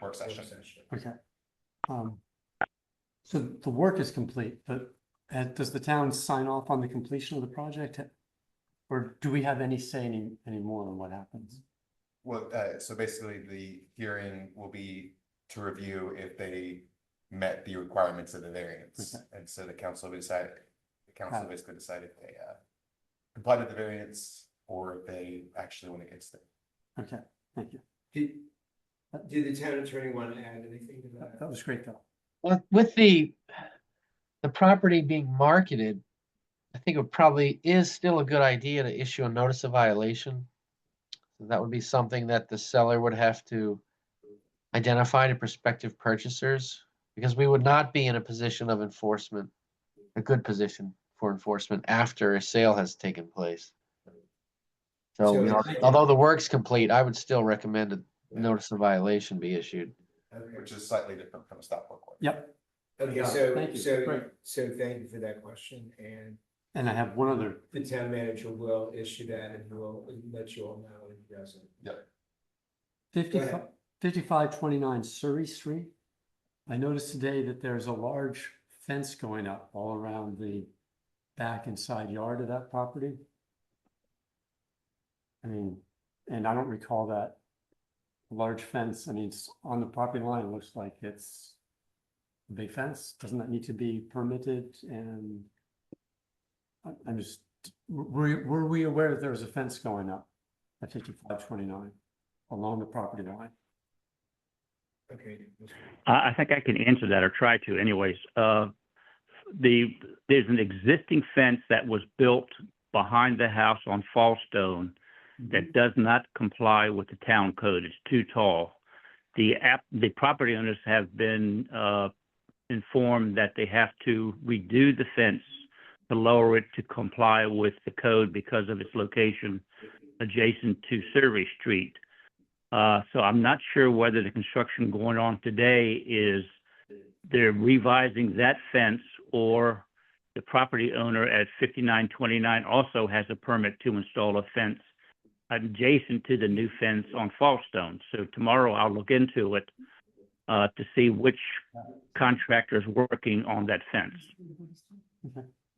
work session. Okay. Um, so the work is complete, but uh, does the town sign off on the completion of the project? Or do we have any say any, anymore on what happens? Well, uh, so basically the hearing will be to review if they met the requirements of the variance. Okay. And so the council decided, the council Got it. basically decided if they, uh, complied with the variance or if they actually went against it. Okay, thank you. Did, did the town attorney want to add anything to That- that? That was great though. With, with the, the property being marketed, I think it probably is still a good idea to issue a notice of violation. So That would be something that the seller would have to identify to prospective purchasers, because we would not be in a position of enforcement, a good position for enforcement after a sale has taken place. So, So you know, it's like- although the work's complete, I would still recommend a Yeah. notice of violation be issued. Which is slightly different from a stop work order. Yep, Okay, Yeah, so, thank you. so, Great. so thank you for that question, and and I have one other the town manager will issue that and will let you all know if he doesn't. Fifty-five, ahead. fifty-five twenty-nine Surrey Street. I noticed today that there's a large fence going up all around the back and side yard of that property. I mean, and I don't recall that large fence, I mean, it's on the property line, it looks like it's a big fence, doesn't that need to be permitted and I- I'm just, were, were we aware that there was a fence going up at fifty-five twenty-nine? along the property line. Okay. I, I think I can answer that or try to anyways. Uh, the, there's an existing fence that was built behind the house on Fallstone that does not comply with the town code. It's too tall. The app, the property owners have been, uh, informed that they have to redo the fence to lower it to comply with the code because of its location adjacent to Survey Street. Uh, so I'm not sure whether the construction going on today is they're revising that fence or the property owner at fifty-nine twenty-nine also has a permit to install a fence adjacent to the new fence on Fallstone. So tomorrow I'll look into it, uh, to see which contractor's working on that fence.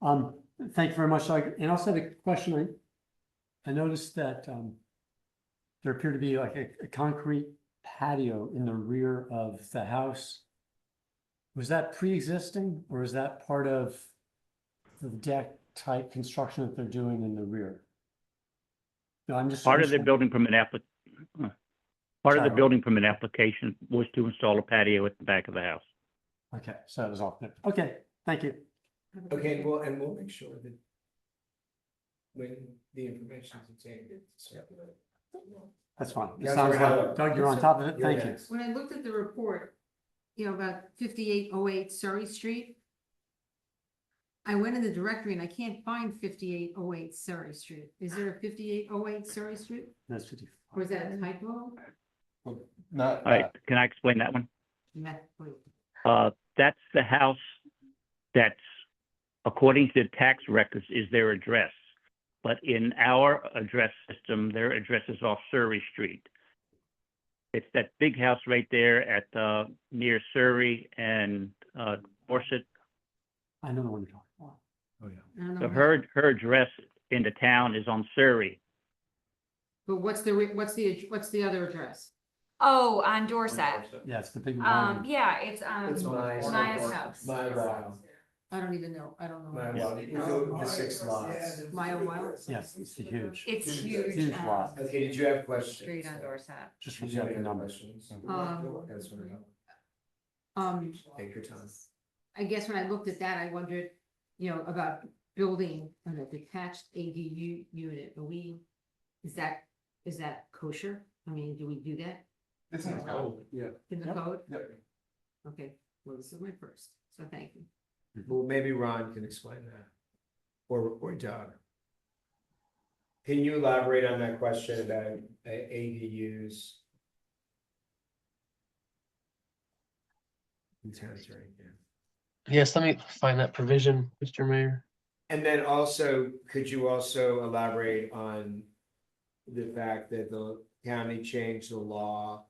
Um, thank you very much, Doug. And also the question, I, I noticed that, um, there appeared to be like a, a concrete patio in the rear of the house. Was that pre-existing or is that part of the deck type construction that they're doing in the rear? No, I'm just. Part of their understand- building permit applic, huh. part of Sorry. the building permit application was to install a patio at the back of the house. Okay, so that was off there. Okay, thank you. Okay, well, and we'll make sure that when the information's obtained, it's circulated. That's fine. It Councilor sounds Howard. like, Doug, you're on top of it. You're Thank you. next. When I looked at the report, you know, about fifty-eight oh eight Surrey Street, I went in the directory and I can't find fifty-eight oh eight Surrey Street. Is there a fifty-eight oh eight Surrey Street? That's fifty-five. Or is that a typo? Not, All right, not- can I explain that one? Nah, wait. Uh, that's the house that's, according to the tax records, is their address. But in our address system, their address is off Surrey Street. It's that big house right there at, uh, near Surrey and, uh, Dorset. I know the one you're talking about. I don't So know. her, her address in the town is on Surrey. But what's the, re- what's the, what's the other address? Oh, on Dorset. Yeah, it's the big Um, one. yeah, it's, um, It's Maya's Maya's house. house. My row. I don't even know. I don't My know. row. You go the six lots. Maya Wild? Yes, it's the huge. It's Huge. huge, Huge um, lot. Okay, did you have questions? street on Dorset. Just Did you have forget the any numbers. questions? Um, That's what I know. Um, Take your time. I guess when I looked at that, I wondered, you know, about building on a detached ADU unit. Are we, is that, is that kosher? I mean, do we do that It's not- Oh, yeah. in the Yep. code? Yep. Okay, well, this is my first, so thank you. Well, maybe Ron can explain that. Or, or Doug. Can you elaborate on that question about uh, ADUs? In towns right now. Yes, let me find that provision, Mr. Mayor. And then also, could you also elaborate on the fact that the county changed the law